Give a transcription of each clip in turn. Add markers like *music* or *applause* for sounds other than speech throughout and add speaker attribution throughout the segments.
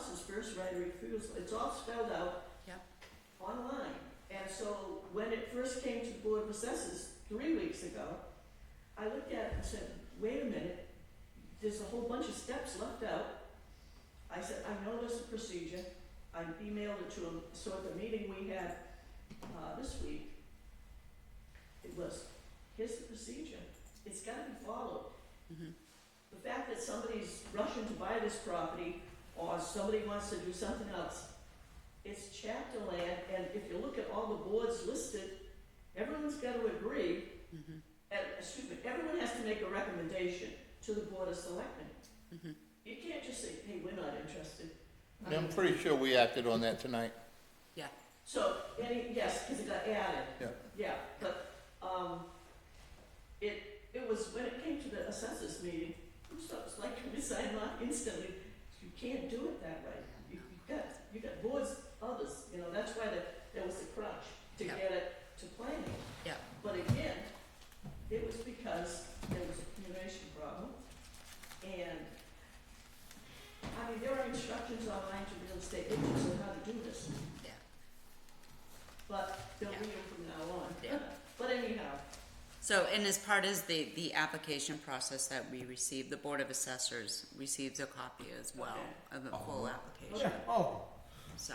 Speaker 1: first right of refusal, it's all spelled out
Speaker 2: Yep.
Speaker 1: online. And so when it first came to Board of Assessors three weeks ago, I looked at it and said, wait a minute, there's a whole bunch of steps left out. I said, I know this procedure, I emailed it to him, so at the meeting we had, uh, this week, it was, here's the procedure, it's gotta be followed.
Speaker 2: Mhm.
Speaker 1: The fact that somebody's rushing to buy this property, or somebody wants to do something else, it's chapter land, and if you look at all the boards listed, everyone's gotta agree,
Speaker 2: Mhm.
Speaker 1: and, excuse me, everyone has to make a recommendation to the board of selectmen.
Speaker 2: Mhm.
Speaker 1: You can't just say, hey, we're not interested. I
Speaker 3: I'm
Speaker 1: mean,
Speaker 3: pretty sure we acted on that tonight.
Speaker 2: Yeah.
Speaker 1: So, any, yes, because it got added.
Speaker 3: Yeah.
Speaker 1: Yeah, but, um, it, it was, when it came to the assessors meeting, who thought it was like, we signed off instantly, you can't do it that way. You, you got, you got boards, others, you know, that's why there, there was the crunch to
Speaker 2: Yeah.
Speaker 1: get it to planning.
Speaker 2: Yeah.
Speaker 1: But again, it was because there was a communication problem, and, I mean, there are instructions online to real estate agents on how to do this.
Speaker 2: Yeah.
Speaker 1: But they'll
Speaker 2: Yeah.
Speaker 1: read them from now on.
Speaker 2: Yeah.
Speaker 1: *laughs* But anyhow,
Speaker 2: So, and as part as the, the application process that we receive, the Board of Assessors receives a copy as well of the full application,
Speaker 4: Oh,
Speaker 2: so.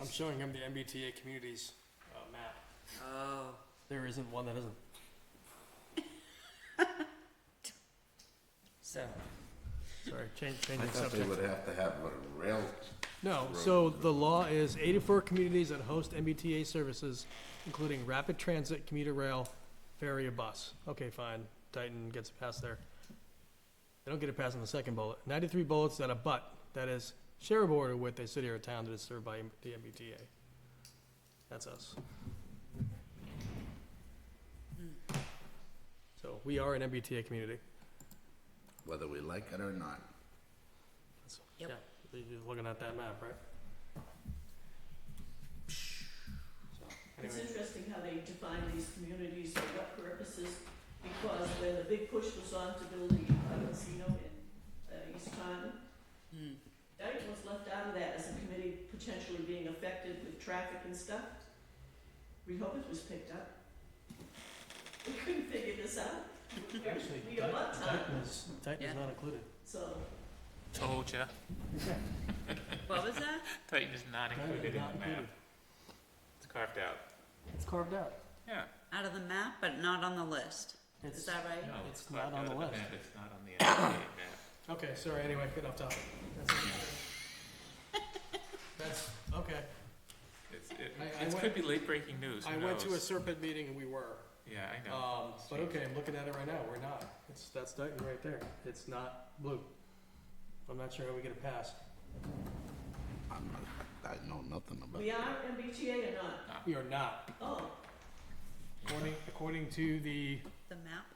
Speaker 4: I'm showing him the MBTA communities uh, map.
Speaker 2: Oh,
Speaker 4: There isn't one that isn't.
Speaker 2: so,
Speaker 4: Sorry, change,
Speaker 5: I
Speaker 4: changing
Speaker 5: thought they
Speaker 4: subject.
Speaker 5: would have to have a rail.
Speaker 4: No, so the law is 84 communities that host MBTA services, including rapid transit, commuter rail, ferry, or bus. Okay, fine. Dayton gets it past there. They don't get it past in the second bullet. 93 bullets that abut, that is, share a border with a city or town that is served by the MBTA. That's us. So we are an MBTA community.
Speaker 5: Whether we like it or not.
Speaker 4: That's-
Speaker 2: Yep.
Speaker 4: Yeah, you're looking at that map, right? So,
Speaker 1: it's
Speaker 4: anyway.
Speaker 1: interesting how they define these communities for what purposes, because when the big push was on to build the uh, casino in uh, East Taunton,
Speaker 2: hmm,
Speaker 1: Dayton was left out of that as a committee potentially being affected with traffic and stuff. Rehoboth was picked up. We couldn't figure this out.
Speaker 4: Actually,
Speaker 1: We are not
Speaker 4: Titan
Speaker 1: time,
Speaker 4: is, Titan
Speaker 2: Yeah.
Speaker 4: is not included.
Speaker 1: so.
Speaker 6: Told ya.
Speaker 2: what was that?
Speaker 6: Titan is not
Speaker 4: Titan is
Speaker 6: included in
Speaker 4: not
Speaker 6: the map.
Speaker 4: included.
Speaker 6: It's carved out.
Speaker 4: It's carved out.
Speaker 6: Yeah.
Speaker 2: Out of the map, but not on the list, is
Speaker 4: It's,
Speaker 2: that right?
Speaker 6: No,
Speaker 4: It's not
Speaker 6: carved
Speaker 4: on
Speaker 6: out
Speaker 4: the
Speaker 6: of
Speaker 4: list.
Speaker 6: map. It's not on the
Speaker 4: *coughs*
Speaker 6: NPA map.
Speaker 4: okay, sorry, anyway, get off topic. That's
Speaker 2: *laughs*
Speaker 4: it. That's, okay.
Speaker 6: It's, it,
Speaker 4: I- I
Speaker 6: it
Speaker 4: went-
Speaker 6: could be late breaking news.
Speaker 4: I
Speaker 6: who
Speaker 4: went to a
Speaker 6: knows?
Speaker 4: Serpent meeting and we were.
Speaker 6: Yeah, I know.
Speaker 4: Um, but okay, I'm looking at it right now, we're not. It's, that's Titan right there. It's not blue. I'm not sure how we get a pass.
Speaker 5: I'm not, I know nothing about
Speaker 1: We are MBTA or not?
Speaker 4: We are not.
Speaker 1: Oh,
Speaker 4: According, according to the,
Speaker 2: The map?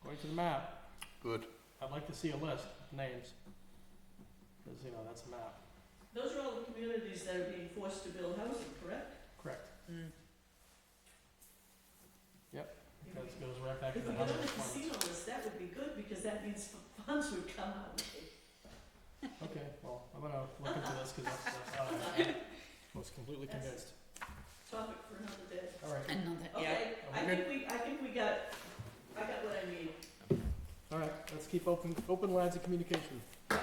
Speaker 4: according to the map,
Speaker 5: Good.
Speaker 4: I'd like to see a list of names. Cause you know, that's a map.
Speaker 1: those are all the communities that are being forced to build housing, correct?
Speaker 4: Correct.
Speaker 2: Hmm.
Speaker 4: That goes right back to
Speaker 1: If
Speaker 4: the
Speaker 1: we got
Speaker 4: housing
Speaker 1: on the
Speaker 4: requirements.
Speaker 1: casino list, that would be good, because that means *laughs* funds would come out.
Speaker 4: Okay, well, I'm gonna look into this because that's, that's, uh, I was completely
Speaker 1: That's-
Speaker 4: convinced.
Speaker 1: Topic for another day.
Speaker 4: All right,
Speaker 2: Another, yeah,
Speaker 1: Okay, I
Speaker 4: Okay.
Speaker 1: think we, I think we got, I got what I need.
Speaker 4: all right, let's keep open, open lines of communication. All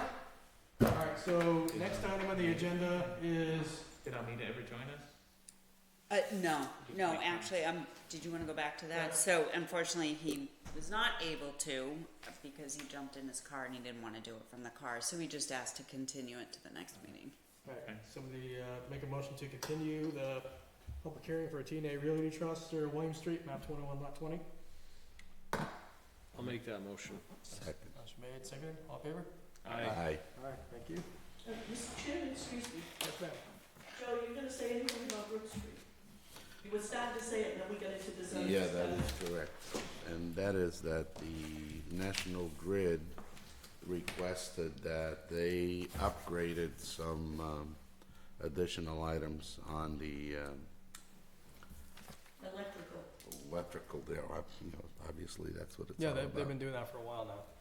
Speaker 4: right, so next item on the agenda is,
Speaker 6: Did Almina ever join us?
Speaker 2: uh, no, no, actually, um, did you wanna go back to that? So unfortunately, he was not able to because he jumped in his car and he didn't wanna do it from the car, so we just asked to continue it to the next meeting.
Speaker 4: all right, somebody, uh, make a motion to continue the public hearing for a TNA Realty Trust or William Street, map twenty-one, lot twenty.
Speaker 7: I'll make that motion.
Speaker 5: Second.
Speaker 4: Motion made, seconded, all in favor?
Speaker 6: I
Speaker 4: All right, thank you.
Speaker 1: Uh, Mr. Chairman, excuse me,
Speaker 4: Yes, ma'am.
Speaker 1: Joe, you gonna say anything about Brook Street? You were starting to say it, and then we got into the zoning.
Speaker 5: Yeah, that
Speaker 1: stuff.
Speaker 5: is correct. And that is that the National Grid requested that they upgraded some um, additional items on the um,
Speaker 1: Electrical.
Speaker 5: electrical there. Ob- you know, Obviously, that's what it's all
Speaker 4: Yeah,
Speaker 5: about.
Speaker 4: they've, they've been doing that for a while now.